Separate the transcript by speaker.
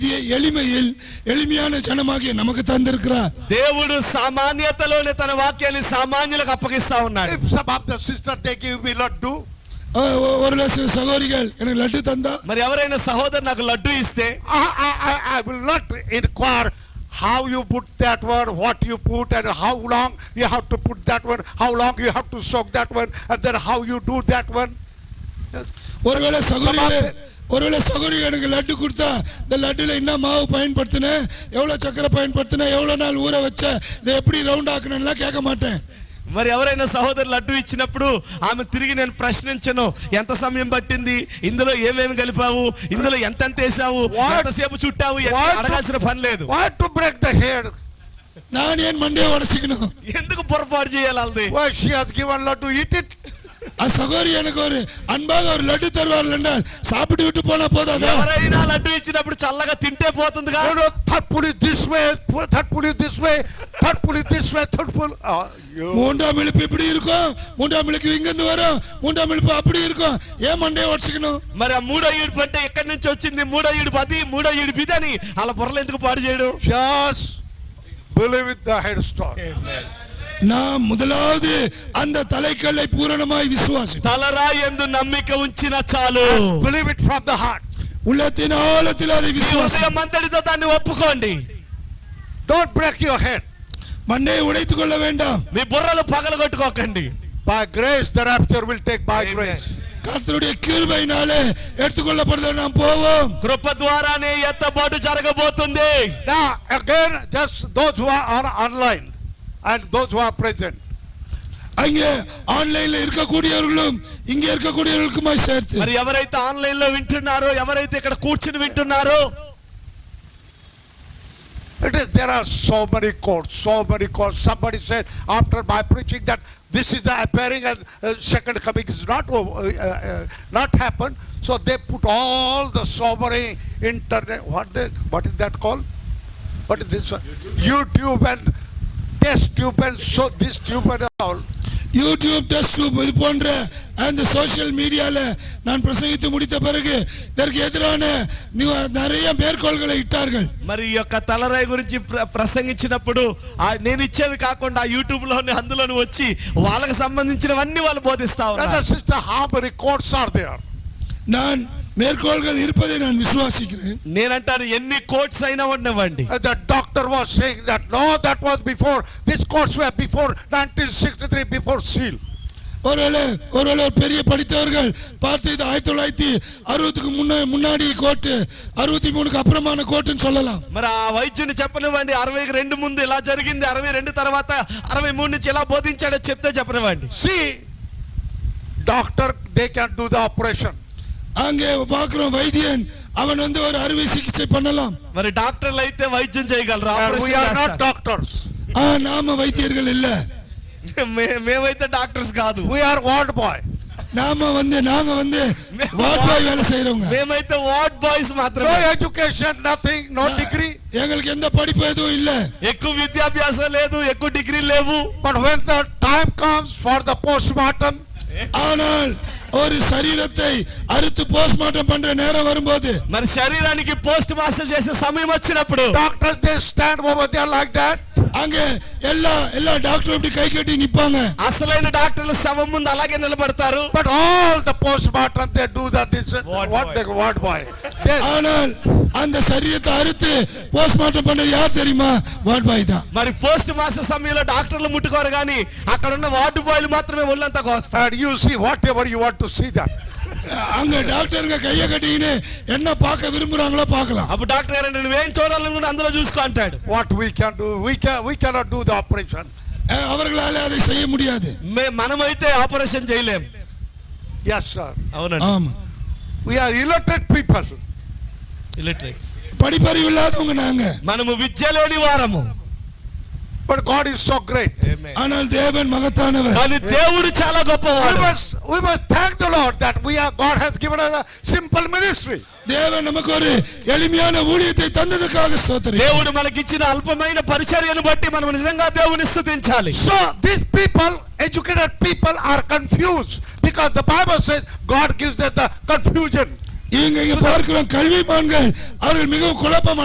Speaker 1: வாழ்க்கையை எளிமையில் எளிமையான ஜனமாகிய நமக்கு தந்திருக்கிறார்
Speaker 2: దేవుడు సామాన్యతలోనే తన వాక్యాన్ని సామాన్యులకు అప్పగిస్తా ఉన్నాడు
Speaker 3: If some of the sister they give me laddu,
Speaker 1: அஹ் ஒ- ஒரு சில சகோதரிகள் எனக்கு லட்டு தந்தா
Speaker 2: మరి ఎవరైనా సహోదరు నాకు లడ్డు ఇస్తే
Speaker 3: I, I, I, I will not inquire how you put that one, what you put, and how long you have to put that one, how long you have to soak that one, and then how you do that one.
Speaker 1: ஒருவேளை சகோதரிகளே ஒருவேளை சகோதரிகள் எனக்கு லட்டு கொடுத்தா இந்த லட்டுல என்ன மாவு பயன்படுத்தினேன் எவ்வளவு சக்கரை பயன்படுத்தினேன் எவ்வளவு நாள் ஊற வச்ச இதை எப்படி ரவுண்ட் ஆக்கணும்லாம் கேட்க மாட்டேன்
Speaker 2: మరి ఎవరైనా సహోదరు లడ్డు ఇచ్చినప్పుడు ఆమె తిరిగి నేను ప్రశ్నించను ఎంత సమయం పట్టింది ఇందులో ఏమేమి కలిపావు ఇందులో ఎంతెంత వేసావు
Speaker 3: What?
Speaker 2: ఎంతసేపు చుట్టావు ఎట్లా?
Speaker 3: What?
Speaker 2: అడగాల్సిన పని లేదు
Speaker 3: Why to break the head?
Speaker 1: நான் ஏன் மண்டையை உடச்சிக்கணும்
Speaker 2: ఎందుకు పొరపాటు చేయాలి వాళ్ళది
Speaker 3: Why she has given laddu, eat it.
Speaker 1: அந்த சகோதரி எனக்கு ஒரு அன்பாக ஒரு லட்டு தருவார்கள் என்றால் சாப்பிட்டு விட்டு போனா போதாதா
Speaker 2: ఎవరైనా లడ్డు ఇచ్చినప్పుడు చల్లగా తింటే పోతుందిగా
Speaker 3: You know, third pull it this way, third pull it this way, third pull it this way, third pull. Oh, you.
Speaker 1: மூன்றாம் இழுப்பு இப்படி இருக்கும் மூன்றாம் இழுப்பு இங்கிருந்து வரும் மூன்றாம் இழுப்பு அப்படி இருக்கும் ஏன் மண்டையை உடச்சிக்கணும்
Speaker 2: మరి ఆ మూడో ఈడుపు అంటే ఎక్కడి నుంచి వచ్చింది మూడో ఈడుపు అది మూడో ఈడుపు ఇది అని అలా బుర్రలు ఎందుకు పాడు చేయడం
Speaker 3: Just believe with the headstone.
Speaker 1: நாம் முதலாவது அந்த தலைக்கல்லை பூரணமாய் விசுவாசி
Speaker 2: తలరాయందు నమ్మిక ఉంచిన చాలు
Speaker 3: Believe it from the heart.
Speaker 1: உள்ளத்தின் ஆழத்தில் அதை
Speaker 2: మీ
Speaker 1: விசுவாசி
Speaker 2: ఉదయం అంతటితో దాన్ని ఒప్పుకోండి
Speaker 3: Don't break your head.
Speaker 1: மண்டையை உடைத்துக் கொள்ள வேண்டாம்
Speaker 2: మీ బుర్రలు పగలగొట్టుకోకండి
Speaker 3: By grace, the rapture will take by grace.
Speaker 1: கர்த்தருடைய கிருபையினாலே எடுத்துக்கொள்ளப்படுதல் நாம் போவோம்
Speaker 2: కృప ద్వారానే ఎత్తబాటు జరగబోతుంది
Speaker 3: Now, again, just those who are on- online and those who are present.
Speaker 1: அங்கே ஆன்லைன்ல இருக்கக்கூடியவர்களும் இங்கே இருக்கக்கூடியவர்களுக்குமாய் சேர்த்து
Speaker 2: మరి ఎవరైతే ఆన్లైన్ లో వింటున్నారో ఎవరైతే ఇక్కడ కూర్చుని వింటున్నారో
Speaker 3: It is, there are so many courts, so many courts. Somebody said after my preaching that this is the appearing and uh, second coming is not, over- uh, uh, not happen. So they put all the so many internet, what, they, what is that called? What is this one? YouTube and test tube and so this tube and all.
Speaker 1: YouTube test இது போன்ற அந்த social மீடியால நான் பிரசங்கித்து முடித்த பிறகு இதற்கு எதிரான new- நிறைய மேற்கோள்களை இட்டார்கள்
Speaker 2: మరి ఈ యొక్క తలరాయి గురించి ప్ర- ప్రసంగించినప్పుడు ఆ నేను ఇచ్చేవి కాకుండా యూట్యూబ్ లోని అందులోని వచ్చి వాళ్ళకి సంబంధించినవన్నీ వాళ్ళు బోధిస్తా
Speaker 3: Brother,
Speaker 2: ఉన్నారు
Speaker 3: sister, how many courts are there?
Speaker 1: நான் மேற்கோள்கள் இருப்பதை நான் விசுவாசிக்கிறேன்
Speaker 2: నేనంటాను ఎన్ని కోట్స్ అయినా ఉండవండి
Speaker 3: And Uh, the doctor was saying that, no, that was before, these courts were before 1963, before seal.
Speaker 1: ஒருவேளை ஒருவேளை ஒரு பெரிய படித்தவர்கள் பார்த்து இது ஆயிரத்தி தொள்ளாயிரத்தி அறுபதுக்கு முன்ன முன்னாடி கோட்டு அறுபத்தி மூணுக்கு அப்புறமான கோட்டுன்னு சொல்லலாம்
Speaker 2: మరి ఆ వైద్యుని చెప్పనివ్వండి అరవైకి రెండు ముందు ఇలా జరిగింది అరవై రెండు తర్వాత అరవై మూడు నుంచి ఇలా బోధించాడో చెప్తే చెప్పనివ్వండి
Speaker 3: See, doctor, they can do the operation.
Speaker 1: அங்கே பார்க்கிறோம் వైద్యన్ அவன் வந்து ஒரு அறுவை சிகிச்சை பண்ணலாம்
Speaker 2: మరి డాక్టర్లు అయితే వైద్యం చేయగలరు
Speaker 3: And we
Speaker 2: ఆపరేషన్
Speaker 3: are
Speaker 2: చేస్తారు.
Speaker 3: not doctors.
Speaker 1: ஆ நாம வைத்தியர்கள் இல்ல
Speaker 2: మే- మేమైతే డాక్టర్స్ కాదు
Speaker 3: We are ward boy.
Speaker 1: நாம வந்து நாங்க வந்து வாட்பாய் வேலை செய்யறவங்க
Speaker 2: మేమైతే వార్డ్ బాయ్స్
Speaker 3: No
Speaker 2: మాత్రమే
Speaker 3: education, nothing, no degree.
Speaker 1: எங்களுக்கு எந்த படிப்பு எதுவும் இல்ல
Speaker 2: ఎక్కువ విద్యాభ్యాసం లేదు ఎక్కువ డిగ్రీ లేవు
Speaker 3: But when the time comes for the postmortem,
Speaker 1: ஆனால் ஒரு சரீரத்தை அறுத்து போஸ்ட்மார்ட்டம் பண்ற நேரம் வரும்போது
Speaker 2: మరి శరీరానికి పోస్ట్ మాస్టర్ చేసే సమయం వచ్చినప్పుడు
Speaker 3: doctors, they stand over there like that.
Speaker 1: அங்க எல்லா எல்லா டாக்டரும் இப்படி கை கட்டி நிப்பாங்க
Speaker 2: అసలైన డాక్టర్లు శవం ముందు అలాగే నిలబడతారు
Speaker 3: But all the postmortem, they do that, this,
Speaker 2: Ward
Speaker 3: what
Speaker 2: boy.
Speaker 3: they, ward boy. They,
Speaker 1: ஆனால் அந்த சரீரத்தை அறுத்து போஸ்ட்மார்ட்டம் பண்றது யார் தெரியுமா வாட்பாய் தான்
Speaker 2: మరి పోస్ట్ మాస్టర్ సమయంలో డాక్టర్లు ముట్టుకోరు కానీ అక్కడ ఉన్న వార్డు బాయ్లు మాత్రమే ఒళ్ళంతా కోస్తారు
Speaker 3: and you see whatever you want to see that.
Speaker 1: அங்க டாக்டருங்க கையை கட்டிக்கின்னு என்ன பார்க்க விரும்புறாங்களோ பார்க்கலாம்
Speaker 2: అప్పుడు డాక్టర్ గారు అంటే నువ్వేం చూడాలనుకుంటే అందులో చూసుకో అంటాడు
Speaker 3: What we can do, we can, we cannot do the operation.
Speaker 1: அஹ் அவர்களால அதை செய்ய முடியாது
Speaker 2: మే మనమైతే ఆపరేషన్ చేయలేం
Speaker 3: Yes, sir.
Speaker 2: అవునండి
Speaker 1: ஆமா
Speaker 3: We are illiterate people.
Speaker 2: Illiterates
Speaker 1: படிப்பறிவு இல்லாதவங்க நாங்க
Speaker 2: మనము విద్యలోని వారము
Speaker 3: But God is so great.
Speaker 1: ஆனால் தேவன் மகத்தானவர்
Speaker 2: కానీ దేవుడు చాలా
Speaker 3: We
Speaker 2: గొప్పవాడు
Speaker 3: must, we must thank the Lord that we are, God has given us a simple ministry.
Speaker 1: தேவன் நமக்கு ஒரு எளிமையான ஊழியத்தை தந்ததுக்காக ஸ்தோத்திரம்
Speaker 2: దేవుడు మనకిచ్చిన అల్పమైన పరిచర్యను బట్టి మనం నిజంగా దేవుని స్తుతించాలి
Speaker 3: So these people, educated people are confused because the Bible says God gives them the confusion.
Speaker 1: இங்க இங்க பார்க்கிறோம் கல்விமான்கள் அவர்கள் மிகவும் குழப்பம்